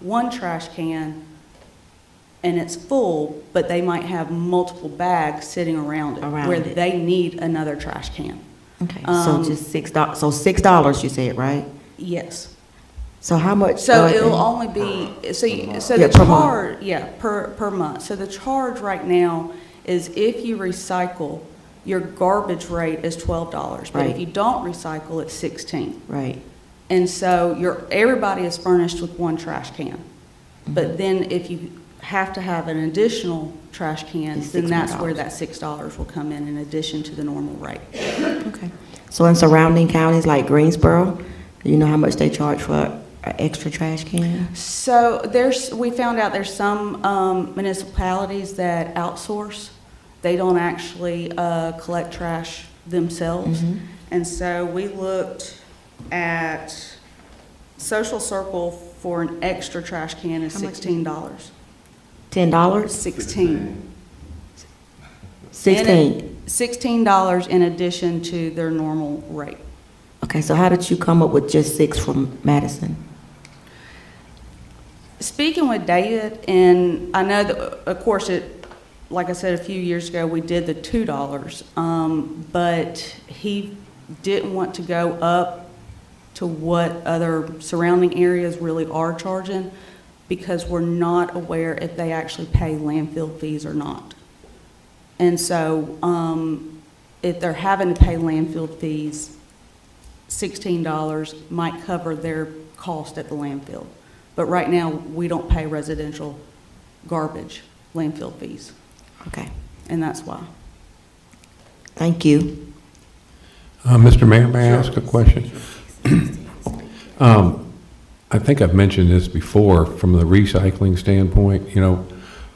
one trash can and it's full, but they might have multiple bags sitting around it. Around Where it. they need another trash can. Okay, so Um, just six dollars. so six dollars you said, right? Yes. So how much? So uh, it'll only be, so, you- so Yeah, the per month. charge, yeah, per, per month. So the charge right now is if you recycle, your garbage rate is twelve dollars. But if Right. you don't recycle, it's sixteen. Right, And so you everybody is furnished with one trash can. Mm-hmm. But then if you have to have an additional trash can, It's then that's where $6. that six dollars will come in in addition to the normal rate. okay. So in surrounding counties like Greensboro, do you know how much they charge for an extra trash can? So there's, we found out there's some um, municipalities that outsource. They don't actually uh, collect trash themselves. Mhm. And so we looked at Social Circle for an extra trash can is How much is it? sixteen dollars. Ten dollars? Sixteen. Sixteen? Sixteen dollars in addition to their normal rate. Okay, so how did you come up with just six from Madison? Speaking with David, and I know that, of course, it, like I said, a few years ago, we did the two dollars, um, but he didn't want to go up to what other surrounding areas really are charging because we're not aware if they actually pay landfill fees or not. And so, um, if they're having to pay landfill fees, sixteen dollars might cover their cost at the landfill. But right now, we don't pay residential garbage landfill fees, Okay, and that's why. thank you. Uh, Mr. Mayor, may I ask a question? Um, I think I've mentioned this before, from the recycling standpoint, you know,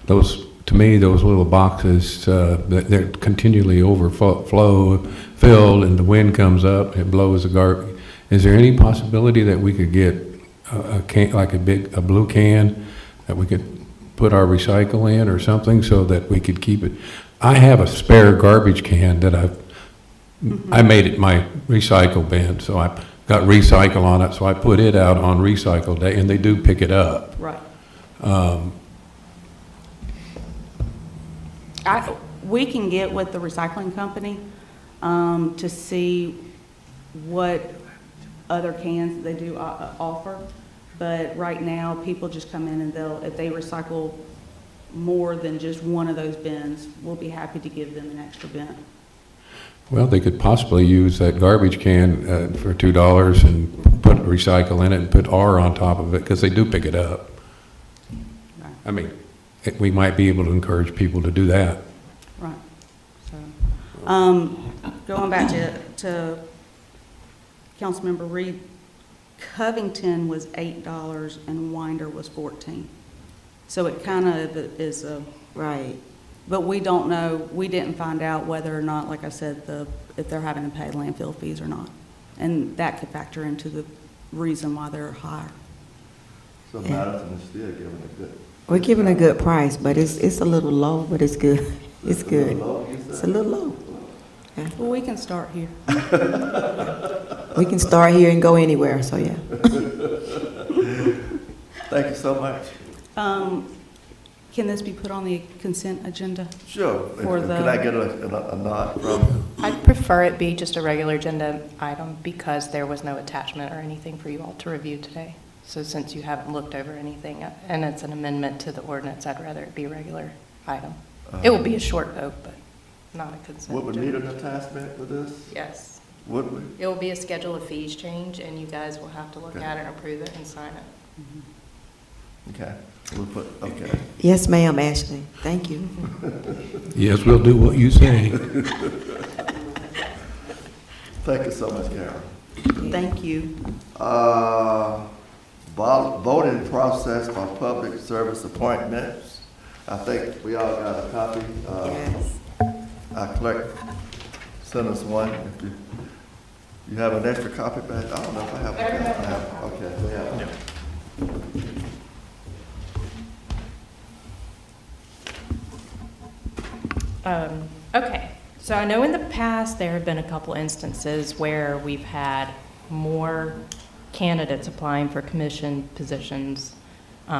those, to me, those little boxes, uh, that they're continually overflow, filled, and the wind comes up, it blows the garbage. Is there any possibility that we could get a a can, like a big, a blue can, that we could put our recycle in or something so that we could keep it? I have a spare garbage can that I've I made it my recycle bin, so I got recycle on it, so I put it out on recycle day, and they do pick it up. Right. I, we can get with the recycling company um, to see what other cans they do o- o- offer. But right now, people just come in and they'll, if they recycle more than just one of those bins, we'll be happy to give them an extra bin. Well, they could possibly use that garbage can uh, for two dollars and put recycle in it and put R on top of it, because they do pick it up. Right. I mean, it- we might be able to encourage people to do that. Right, so, um, going back to, to Councilmember Reed, Covington was eight dollars and Winder was fourteen. So it kind of is a, Right. but we don't know, we didn't find out whether or not, like I said, the, if they're having to pay landfill fees or not. And that could factor into the reason why they're higher. So Madison is still giving a good. We're giving a good price, but it's, it's a little low, but it's good. It's a little good. low, you It's a said? little low. Well, we can start here. We can start here and go anywhere, so yeah. Thank you so much. Um, can this be put on the consent agenda? Sure. For Could the- I get a, a- a nod from, I'd prefer it be just a regular agenda item because there was no attachment or anything for you all to review today. So since you haven't looked over anything, uh, and it's an amendment to the ordinance, I'd rather it be a regular item. It will be a short vote, but not a consent. what would need agenda. an attachment for this? Yes. Would we? It will be a schedule of fees change, and you guys will have to look Okay. at it and approve it and sign it. Okay, we'll put, okay. Yes, ma'am, Ashley. Thank you. Yes, we'll do what you say. Thank you so much, Karen. Thank you. Uh, vol- voting process for public service appointments. I think we all got a copy. Uh, Yes. Our clerk sent us one. If you- You have an extra copy back? I don't know if I have. one. I have- Okay, we have. one. Um, Okay, so I know in the past, there have been a couple instances where we've had more candidates applying for commission positions